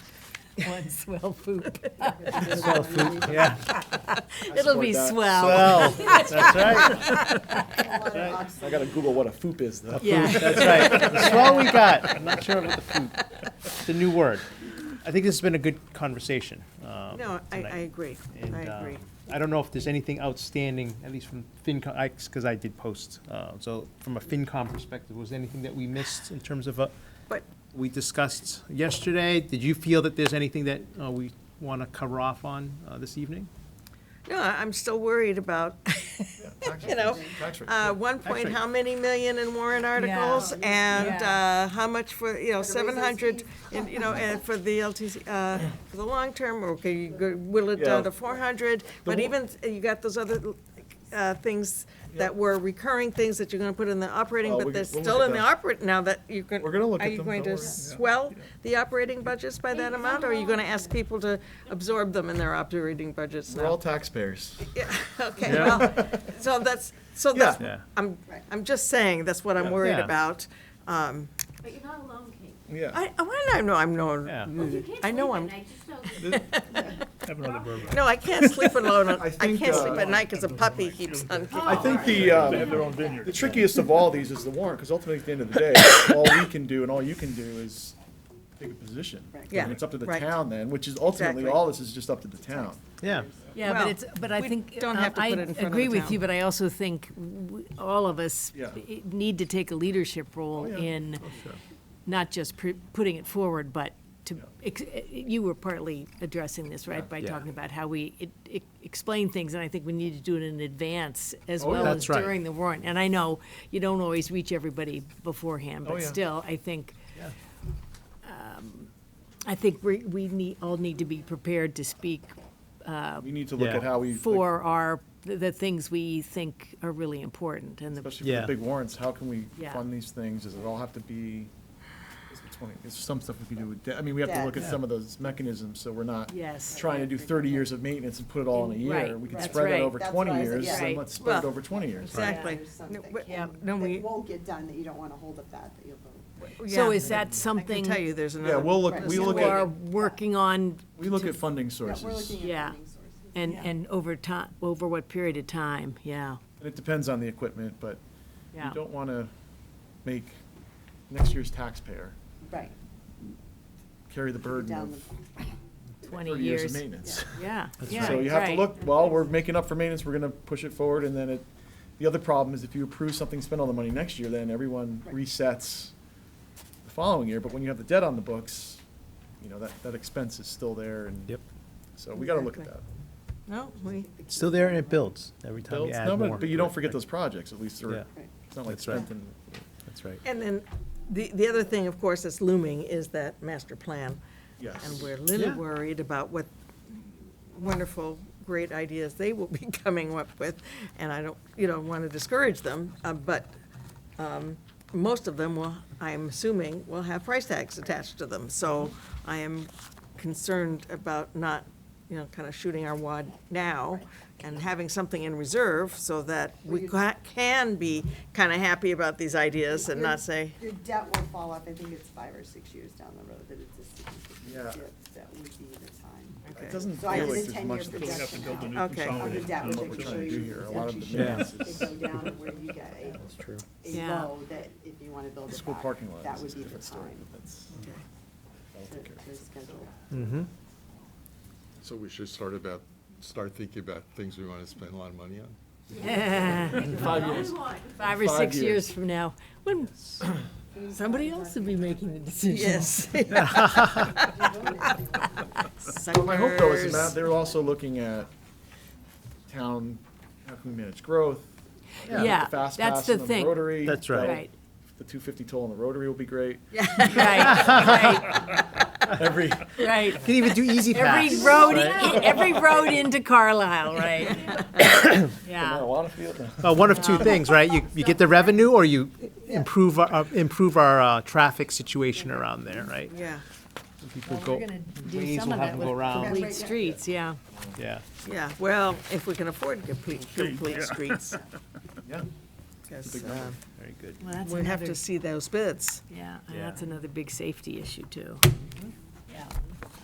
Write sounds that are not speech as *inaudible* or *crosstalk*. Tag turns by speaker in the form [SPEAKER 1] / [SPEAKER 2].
[SPEAKER 1] *laughs* One swell poop.
[SPEAKER 2] Swell food, yeah.
[SPEAKER 1] It'll be
[SPEAKER 3] that.
[SPEAKER 1] swell.
[SPEAKER 2] Well, that's right,
[SPEAKER 3] I gotta Google what a foop is though.
[SPEAKER 4] *laughs*
[SPEAKER 1] Yeah,
[SPEAKER 2] that's right. The swell we got, I'm not sure about the food. It's a new word. I think this has been a good conversation. um,
[SPEAKER 4] No, I, I
[SPEAKER 2] tonight.
[SPEAKER 4] agree,
[SPEAKER 2] And,
[SPEAKER 4] I agree.
[SPEAKER 2] um, I don't know if there's anything outstanding, at least from FinCom, because I did post. uh, So from a FinCom perspective, was there anything that we missed in terms of, uh,
[SPEAKER 4] But
[SPEAKER 2] we discussed yesterday? Did you feel that there's anything that uh, we want to cover off on uh, this evening?
[SPEAKER 4] No, I- I'm still worried about,
[SPEAKER 3] *laughs*
[SPEAKER 4] you know, uh, one point,
[SPEAKER 2] Actually-
[SPEAKER 4] how many million in warrant articles? And uh, how much for, you know, seven hundred, and, you know, and for the LTC, uh, for the long term, or can you go- will it down
[SPEAKER 3] Yeah.
[SPEAKER 4] to four hundred? But
[SPEAKER 3] wa-
[SPEAKER 4] even, uh, you got those other uh, things that were recurring things that you're gonna put in the operating,
[SPEAKER 3] Oh,
[SPEAKER 4] but
[SPEAKER 3] we-
[SPEAKER 4] they're
[SPEAKER 3] we'll look
[SPEAKER 4] still
[SPEAKER 3] at
[SPEAKER 4] in the
[SPEAKER 3] that.
[SPEAKER 4] operate, now that you can.
[SPEAKER 3] We're gonna look at them,
[SPEAKER 4] Are you
[SPEAKER 3] don't
[SPEAKER 4] going to
[SPEAKER 3] worry. Yeah.
[SPEAKER 4] swell the operating budgets by that amount, or are you gonna ask people to absorb them in their operating budgets now?
[SPEAKER 5] We're all taxpayers.
[SPEAKER 4] Yeah, okay,
[SPEAKER 2] Yeah.
[SPEAKER 4] well, so that's, so
[SPEAKER 3] Yeah.
[SPEAKER 4] that's,
[SPEAKER 2] Yeah.
[SPEAKER 4] I'm, I'm just saying, that's what I'm worried
[SPEAKER 2] Yeah.
[SPEAKER 4] about. Um,
[SPEAKER 6] But you're not alone, Kate.
[SPEAKER 3] Yeah.
[SPEAKER 4] I, I wanna know, I'm
[SPEAKER 2] Yeah.
[SPEAKER 4] known,
[SPEAKER 6] Well, you
[SPEAKER 4] Mm.
[SPEAKER 6] can't
[SPEAKER 4] I know
[SPEAKER 6] sleep at
[SPEAKER 4] I'm-
[SPEAKER 6] night, just
[SPEAKER 4] *laughs*
[SPEAKER 6] know that
[SPEAKER 2] Have another bourbon.
[SPEAKER 4] no, I can't sleep alone, I
[SPEAKER 3] think,
[SPEAKER 4] can't sleep
[SPEAKER 3] uh,
[SPEAKER 4] at night because a puppy keeps on kicking.
[SPEAKER 3] I think the, um, the trickiest of all these is the warrant, because ultimately at the end of the
[SPEAKER 4] *coughs*
[SPEAKER 3] day, all we can do and all you can do is take a position.
[SPEAKER 4] Yeah,
[SPEAKER 3] And it's up to the
[SPEAKER 4] right.
[SPEAKER 3] town then, which is ultimately,
[SPEAKER 4] Exactly.
[SPEAKER 3] all this is just up to the town.
[SPEAKER 2] Yeah.
[SPEAKER 1] yeah,
[SPEAKER 4] Well,
[SPEAKER 1] but it's, but I
[SPEAKER 4] we
[SPEAKER 1] think,
[SPEAKER 4] don't
[SPEAKER 1] um,
[SPEAKER 4] have to
[SPEAKER 1] I
[SPEAKER 4] put it in front of
[SPEAKER 1] agree
[SPEAKER 4] the
[SPEAKER 1] with
[SPEAKER 4] town.
[SPEAKER 1] you, but I also think w- all of us
[SPEAKER 3] Yeah. Oh,
[SPEAKER 1] i- need to take a leadership role
[SPEAKER 3] yeah.
[SPEAKER 1] in not just pr- putting it forward, but to, ex- e, you were partly addressing this, right? By
[SPEAKER 2] Yeah.
[SPEAKER 1] talking about how we e- e- explain things, and I think we need to do it in advance as
[SPEAKER 3] Oh,
[SPEAKER 1] well
[SPEAKER 3] yeah.
[SPEAKER 1] as
[SPEAKER 2] That's right.
[SPEAKER 1] during the warrant. And I know you don't always reach everybody beforehand,
[SPEAKER 3] Oh,
[SPEAKER 1] but
[SPEAKER 3] yeah.
[SPEAKER 1] still, I think um, I think we, we need, all need to be prepared to speak
[SPEAKER 3] We need to look
[SPEAKER 2] Yeah.
[SPEAKER 3] at how we, especially
[SPEAKER 1] for our, the the things we think are really important and the,
[SPEAKER 3] for the
[SPEAKER 2] Yeah.
[SPEAKER 3] big warrants, how can we
[SPEAKER 1] Yeah.
[SPEAKER 3] fund these things? Does it all have to be, it's 20 it's some stuff we can do with, debt. I mean, we have to look at some of those mechanisms, so we're not
[SPEAKER 1] yes.
[SPEAKER 3] trying to do thirty years of maintenance and put it all in a
[SPEAKER 1] Right,
[SPEAKER 3] year. We could
[SPEAKER 1] that's
[SPEAKER 3] spread that
[SPEAKER 1] right.
[SPEAKER 3] over
[SPEAKER 7] That's
[SPEAKER 3] twenty
[SPEAKER 7] what I said,
[SPEAKER 3] years,
[SPEAKER 7] yeah.
[SPEAKER 3] and let's spread it
[SPEAKER 4] Well,
[SPEAKER 3] over twenty years.
[SPEAKER 4] Exactly.
[SPEAKER 7] There's
[SPEAKER 4] No,
[SPEAKER 7] something,
[SPEAKER 4] we-
[SPEAKER 7] yeah,
[SPEAKER 4] no,
[SPEAKER 7] that
[SPEAKER 4] we-
[SPEAKER 7] won't get done, that you don't wanna hold up that, that you'll vote.
[SPEAKER 1] So
[SPEAKER 4] yeah.
[SPEAKER 1] is that
[SPEAKER 4] I can
[SPEAKER 1] something
[SPEAKER 4] tell you, there's another.
[SPEAKER 3] Yeah, we'll look,
[SPEAKER 7] Right.
[SPEAKER 3] we
[SPEAKER 7] So
[SPEAKER 3] look
[SPEAKER 1] you are
[SPEAKER 3] at,
[SPEAKER 1] working on
[SPEAKER 3] we look at funding
[SPEAKER 7] Yeah, we're
[SPEAKER 3] sources.
[SPEAKER 7] looking
[SPEAKER 1] Yeah.
[SPEAKER 7] at funding sources.
[SPEAKER 1] and, and over time, over what period of time? Yeah,
[SPEAKER 3] And it depends on the equipment, but you
[SPEAKER 1] yeah.
[SPEAKER 3] don't want to make next year's taxpayer
[SPEAKER 7] Right.
[SPEAKER 3] carry the burden
[SPEAKER 7] Down
[SPEAKER 3] of
[SPEAKER 7] the,
[SPEAKER 1] Twenty
[SPEAKER 3] thirty years of
[SPEAKER 1] years.
[SPEAKER 3] maintenance.
[SPEAKER 1] Yeah, yeah,
[SPEAKER 3] So you have to
[SPEAKER 1] right.
[SPEAKER 3] look, well, we're making up for maintenance, we're going to push it forward, and then it, the other problem is if you approve something, spend all the money next year, then everyone
[SPEAKER 7] Right.
[SPEAKER 3] resets the following year, but when you have the debt on the books, you know, that, that expense is still there, and
[SPEAKER 2] Yep.
[SPEAKER 3] so we got to look at that.
[SPEAKER 4] Exactly. No, we,
[SPEAKER 2] Still there and it builds every time you
[SPEAKER 3] Builds-
[SPEAKER 2] add
[SPEAKER 3] no,
[SPEAKER 2] more.
[SPEAKER 3] But but you don't forget those projects, at least,
[SPEAKER 2] Yeah.
[SPEAKER 3] or, it's not like
[SPEAKER 2] That's right.
[SPEAKER 3] something,
[SPEAKER 2] That's right.
[SPEAKER 4] and then, the, the other thing, of course, that's looming is that master plan.
[SPEAKER 3] yes.
[SPEAKER 4] And we're a little
[SPEAKER 2] Yeah.
[SPEAKER 4] worried about what wonderful, great ideas they will be *laughs* coming up with. And I don't, you know, want to discourage them, uh, but um, most of them will, I'm assuming, will have price tags attached to them. So I am concerned about not, you know, kind of shooting our wad now and having something in reserve so that we ca- can be kind of happy about these ideas and not say,
[SPEAKER 7] your debt will fall off, I think it's five or six years down the road that it's a significant
[SPEAKER 3] Yeah.
[SPEAKER 7] debt, that would be the time.
[SPEAKER 3] It doesn't
[SPEAKER 7] So
[SPEAKER 3] feel
[SPEAKER 7] I
[SPEAKER 3] like
[SPEAKER 7] did a
[SPEAKER 3] there's
[SPEAKER 7] ten-year
[SPEAKER 3] much that's
[SPEAKER 7] projection out
[SPEAKER 4] okay.
[SPEAKER 7] of the debt,
[SPEAKER 3] what
[SPEAKER 7] which
[SPEAKER 3] we're
[SPEAKER 7] I can
[SPEAKER 3] trying
[SPEAKER 7] show
[SPEAKER 3] to do here.
[SPEAKER 7] you,
[SPEAKER 3] A
[SPEAKER 7] it's
[SPEAKER 3] lot of
[SPEAKER 7] actually
[SPEAKER 3] the
[SPEAKER 7] showing
[SPEAKER 3] math
[SPEAKER 7] it
[SPEAKER 3] is-
[SPEAKER 7] go down to where you get a,
[SPEAKER 2] True.
[SPEAKER 7] a
[SPEAKER 1] Yeah.
[SPEAKER 7] low that if you wanna build it
[SPEAKER 3] School
[SPEAKER 7] back,
[SPEAKER 3] parking lot
[SPEAKER 7] that
[SPEAKER 3] is
[SPEAKER 7] would
[SPEAKER 3] a
[SPEAKER 7] be the
[SPEAKER 3] different story, Hmm.
[SPEAKER 7] time
[SPEAKER 3] but that's, I'll
[SPEAKER 7] to,
[SPEAKER 3] take care of
[SPEAKER 7] to schedule.
[SPEAKER 2] Mm-hmm.
[SPEAKER 5] So we should start about, start thinking about things we want to spend a lot of money on?
[SPEAKER 3] Five
[SPEAKER 6] all we
[SPEAKER 3] years.
[SPEAKER 6] want.
[SPEAKER 1] Five or
[SPEAKER 3] Five
[SPEAKER 1] six
[SPEAKER 3] years.
[SPEAKER 1] years from now, when somebody else will be making the decision. *laughs*
[SPEAKER 4] yes.
[SPEAKER 3] Well, my hope though is that they're also looking at town, how can we manage growth? you know, with the
[SPEAKER 1] Yeah,
[SPEAKER 3] fast
[SPEAKER 1] that's
[SPEAKER 3] pass
[SPEAKER 1] the
[SPEAKER 3] and
[SPEAKER 1] thing.
[SPEAKER 3] Rotary.
[SPEAKER 2] That's right.
[SPEAKER 3] that'll-
[SPEAKER 1] Right,
[SPEAKER 3] The two fifty toll on the Rotary will be great.
[SPEAKER 1] right,
[SPEAKER 2] *laughs*
[SPEAKER 3] Every,
[SPEAKER 1] right, right.
[SPEAKER 2] Can even do
[SPEAKER 1] *laughs*
[SPEAKER 2] easy
[SPEAKER 1] Every
[SPEAKER 2] pass.
[SPEAKER 1] road, i- *laughs* every road into Carlisle, right? Yeah,
[SPEAKER 3] marijuana field. no.
[SPEAKER 2] Uh, one of two things, right? You, you get the revenue or you improve our, uh, improve our, uh, traffic situation around there, right?
[SPEAKER 4] Yeah,
[SPEAKER 2] People
[SPEAKER 1] we're
[SPEAKER 2] go,
[SPEAKER 1] gonna do
[SPEAKER 2] ways
[SPEAKER 1] some
[SPEAKER 2] will
[SPEAKER 1] of
[SPEAKER 2] have
[SPEAKER 1] that
[SPEAKER 2] to
[SPEAKER 1] with
[SPEAKER 2] go around.
[SPEAKER 1] complete streets, yeah.
[SPEAKER 2] yeah.
[SPEAKER 4] yeah, well, if we can afford complete, complete streets.
[SPEAKER 3] *laughs* Yeah,
[SPEAKER 4] 'cause,
[SPEAKER 3] big number.
[SPEAKER 4] um,
[SPEAKER 2] Very good.
[SPEAKER 1] Well, that's
[SPEAKER 4] We have
[SPEAKER 1] another,
[SPEAKER 4] to see those bids.
[SPEAKER 1] yeah, and
[SPEAKER 2] Yeah.
[SPEAKER 1] that's another big safety issue too.